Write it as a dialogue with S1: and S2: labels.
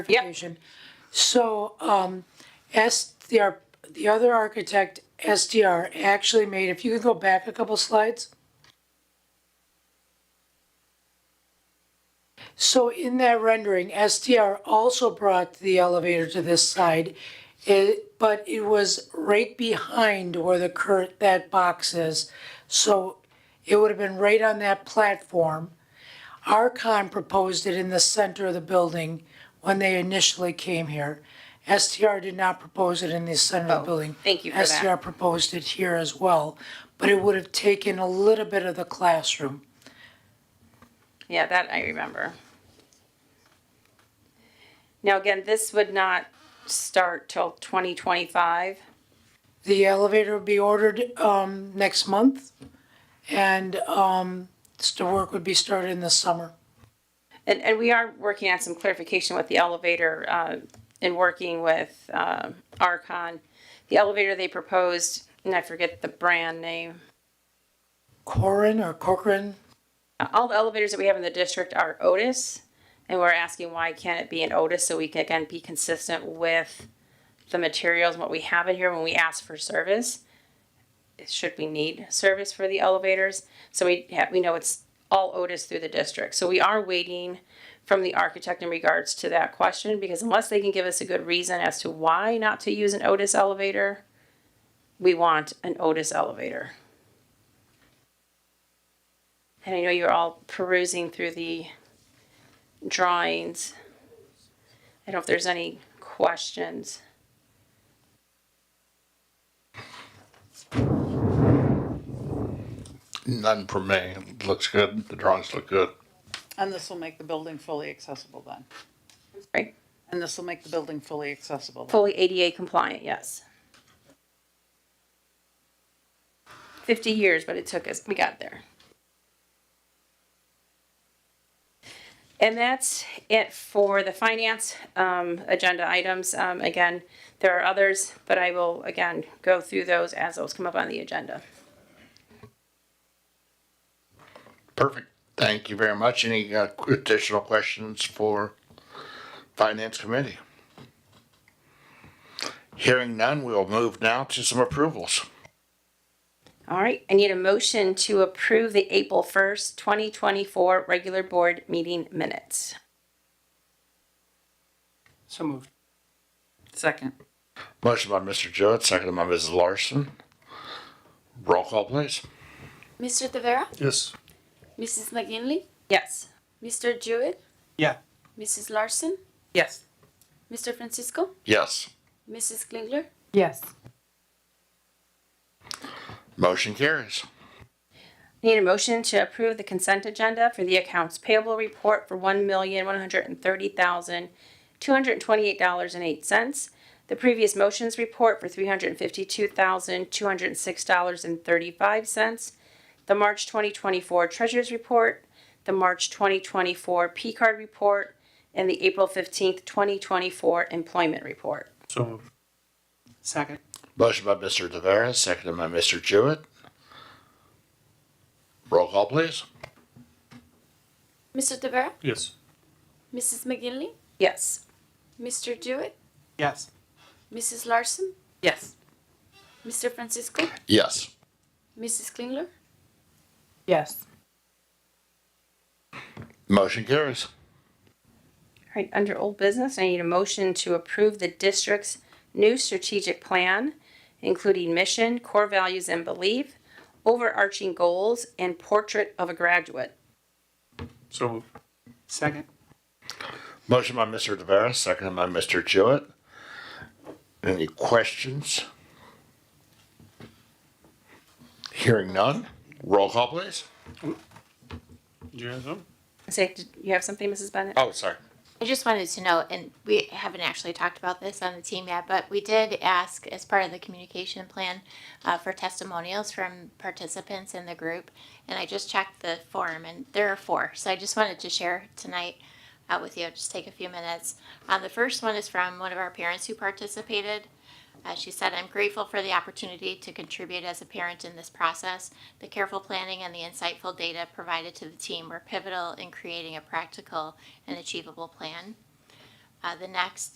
S1: clarification.
S2: So, um, S, the, ar- the other architect, SDR, actually made, if you could go back a couple slides. So in that rendering, SDR also brought the elevator to this side, it, but it was right behind where the current, that box is. So it would have been right on that platform. Archon proposed it in the center of the building when they initially came here. STR did not propose it in the center of the building.
S1: Oh, thank you for that.
S2: STR proposed it here as well, but it would have taken a little bit of the classroom.
S1: Yeah, that I remember. Now, again, this would not start till 2025.
S2: The elevator would be ordered um, next month, and um, s- the work would be started in the summer.
S1: And, and we are working on some clarification with the elevator uh, and working with um, Archon. The elevator they proposed, and I forget the brand name,
S2: Corin or Corcoran,
S1: all the elevators that we have in the district are Otis. And we're asking why can't it be an Otis so we can again be consistent with the materials and what we have in here when we ask for service. Should we need service for the elevators? So we have, we know it's all Otis through the district. So we are waiting from the architect in regards to that question because unless they can give us a good reason as to why not to use an Otis elevator, we want an Otis elevator. And I know you're all perusing through the drawings. I don't know if there's any questions.
S3: None for me. It looks good. The drawings look good.
S4: And this will make the building fully accessible then?
S1: Right?
S4: And this will make the building fully accessible then?
S1: Fully ADA compliant, yes. 50 years, but it took us, we got there. And that's it for the finance um, agenda items. Um, Again, there are others, but I will, again, go through those as those come up on the agenda.
S3: Perfect. Thank you very much. Any uh, qu- additional questions for Finance Committee? Hearing none, we will move now to some approvals.
S1: All right, I need a motion to approve the April 1st, 2024 regular board meeting minutes.
S5: So moved.
S4: Second.
S3: Motion by Mr. Jewett, seconded by Mrs. Larson. Roll call, please.
S6: Mr. Tavera?
S5: Yes.
S6: Mrs. McGinley?
S1: Yes.
S6: Mr. Jewett?
S5: Yeah.
S6: Mrs. Larson?
S4: Yes.
S6: Mr. Francisco?
S3: Yes.
S6: Mrs. Klingler?
S4: Yes.
S3: Motion carries.
S1: Need a motion to approve the consent agenda for the accounts payable report for $1,130,228.08. The previous motions report for $352,206.35. The March 2024 treasurer's report, the March 2024 P-card report, and the April 15th, 2024 employment report.
S5: So moved. Second.
S3: Motion by Mr. Tavera, seconded by Mr. Jewett. Roll call, please.
S6: Mr. Tavera?
S5: Yes.
S6: Mrs. McGinley?
S1: Yes.
S6: Mr. Jewett?
S5: Yes.
S6: Mrs. Larson?
S4: Yes.
S6: Mr. Francisco?
S3: Yes.
S6: Mrs. Klingler?
S4: Yes.
S3: Motion carries.
S1: All right, under old business, I need a motion to approve the district's new strategic plan, including mission, core values and belief, overarching goals, and portrait of a graduate.
S5: So moved. Second.
S3: Motion by Mr. Tavera, seconded by Mr. Jewett. Any questions? Hearing none, roll call please.
S5: Do you have some?
S1: Say, did you have something, Mrs. Bennett?
S3: Oh, sorry.
S7: I just wanted to know, and we haven't actually talked about this on the team yet, but we did ask as part of the communication plan uh, for testimonials from participants in the group. And I just checked the form, and there are four. So I just wanted to share tonight uh, with you. Just take a few minutes. Uh, the first one is from one of our parents who participated. Uh, she said, I'm grateful for the opportunity to contribute as a parent in this process. The careful planning and the insightful data provided to the team were pivotal in creating a practical and achievable plan. Uh, the next